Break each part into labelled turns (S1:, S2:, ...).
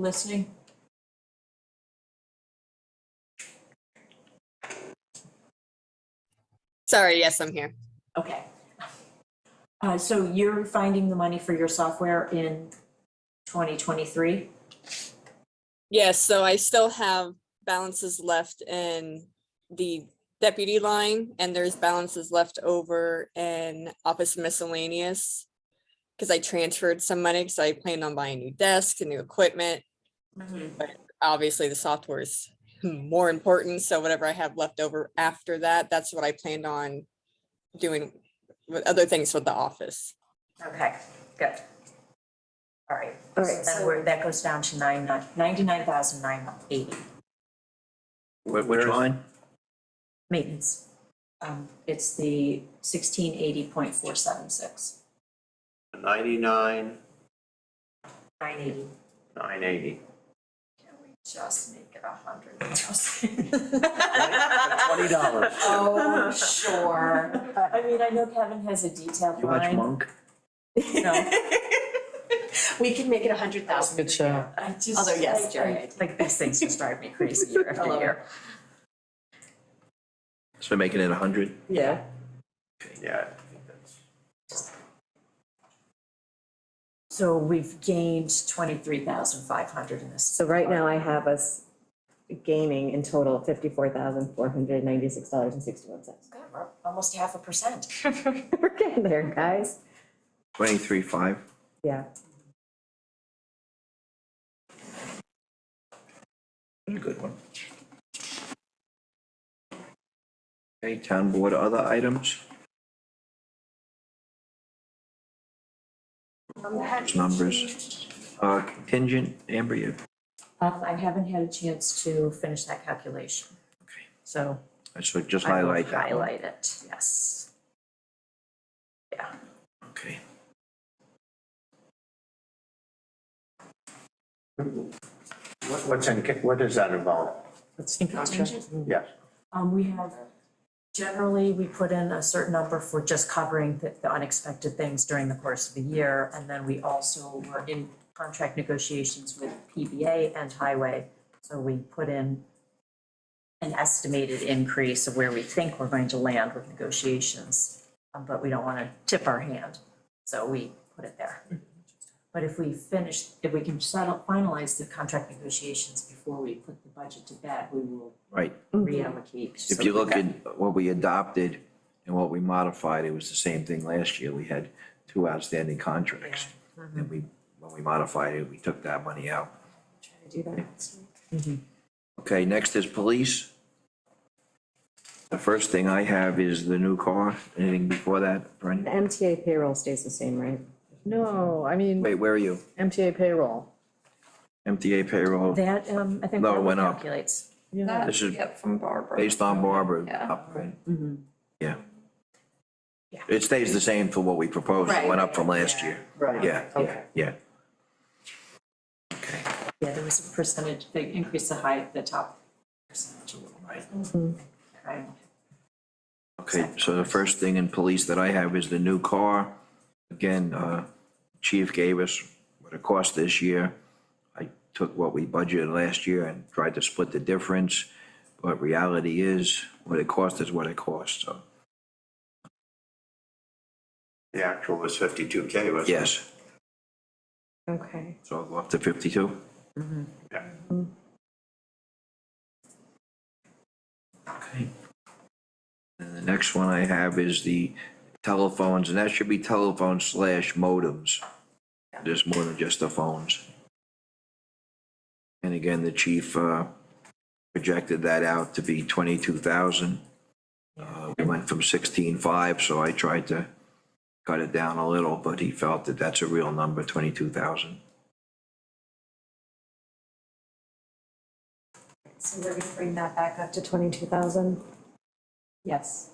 S1: listening?
S2: Sorry, yes, I'm here.
S1: Okay. Uh, so you're finding the money for your software in twenty twenty-three?
S2: Yes, so I still have balances left in the deputy line and there's balances left over in office miscellaneous. Because I transferred some money, so I planned on buying new desks and new equipment. Obviously, the software is more important, so whatever I have left over after that, that's what I planned on doing with other things with the office.
S1: Okay, good. All right.
S3: All right,
S1: Then we're, that goes down to nine, nine, ninety-nine thousand nine eighty,
S4: Wh- Which line?
S1: maintenance. Um, it's the sixteen eighty point four seven six,
S4: Ninety-nine,
S1: nine eighty.
S4: nine eighty.
S1: Can we just make it a hundred?
S4: Twenty dollars.
S1: Oh, sure. I mean, I know Kevin has a detailed
S4: You watch
S1: line.
S4: Monk?
S1: No. We can make it a hundred thousand.
S3: Good show.
S1: I just.
S3: Although, yes,
S1: I-
S3: Jerry,
S1: I- Like, these things just drive me crazy year after year.
S4: So making it a hundred?
S3: Yeah.
S4: Yeah. I think that's-
S1: So we've gained twenty-three thousand five hundred in this.
S3: So right now I have us gaining in total fifty-four thousand four hundred ninety-six dollars and sixty-one cents.
S1: God, we're almost half a percent.
S3: We're getting there, guys.
S4: Twenty-three, five.
S3: Yeah.
S4: Good one. Okay, town board, other items? Those Numbers. Uh, contingent, Amber, you,
S1: Um, I haven't had a chance to finish that calculation.
S4: Okay.
S1: So
S4: so just
S1: I will
S4: highlight that one.
S1: highlight it, yes. Yeah,
S4: Okay.
S5: What- What's in, what does that involve?
S1: contingent.
S5: Yes.
S1: Um, we have, generally, we put in a certain number for just covering the, the unexpected things during the course of the year. And then we also were in contract negotiations with PBA and Highway. So we put in an estimated increase of where we think we're going to land with negotiations. um, But we don't want to tip our hand, so we put it there. But if we finish, if we can settle, finalize the contract negotiations before we put the budget to bed, we will
S4: Right,
S1: Mm-hmm. reallocate.
S4: if you look at what we adopted and what we modified, it was the same thing last year. We had two outstanding contracts.
S3: uh-huh.
S4: And we, when we modified it, we took that money out. Mm-hmm.
S3: Do that next week.
S4: Okay, next is police. The first thing I have is the new car. Anything before that,
S3: The
S4: Brendan?
S3: MTA payroll stays the same, right?
S6: No, I mean,
S4: Wait, where are you?
S6: MTA payroll.
S4: MTA payroll.
S1: That, um, I think
S4: No, it
S1: Barbara
S4: went up.
S1: calculates.
S6: Yeah,
S4: This is based on Barbara. up, right? Yeah.
S1: Yeah.
S4: It stays the same for what we proposed. It went up from last year.
S6: Right.
S4: Yeah, yeah,
S6: Okay.
S4: yeah.
S1: Yeah, there was a percentage, they increased the high, the top
S4: That's a little right.
S1: right?
S4: Okay, so the first thing in police that I have is the new car. Again, uh, chief gave us what it cost this year. I took what we budgeted last year and tried to split the difference, but reality is, what it cost is what it cost, so,
S5: The actual was fifty-two K, wasn't it?
S4: yes.
S3: Okay.
S4: So I'll go up to fifty-two?
S5: Yeah.
S4: Okay. And the next one I have is the telephones, and that should be telephone slash modems. There's more than just the phones. And again, the chief, uh, projected that out to be twenty-two thousand. Uh, we went from sixteen-five, so I tried to cut it down a little, but he felt that that's a real number, twenty-two thousand.
S3: So we're gonna bring that back up to twenty-two thousand?
S1: Yes.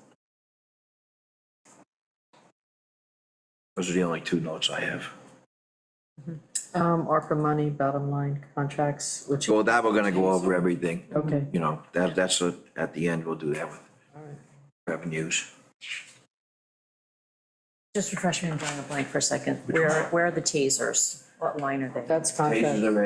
S4: Those are the only two notes I have.
S6: um, ARPA money, bottom line contracts, which,
S4: So with that, we're gonna go over everything,
S6: okay.
S4: you know, that, that's, a- at the end, we'll do that with revenues.
S1: Just refresh me and blank for a second. Where, where are the tasers? What line are they?
S6: That's contract.
S4: Pages are ready.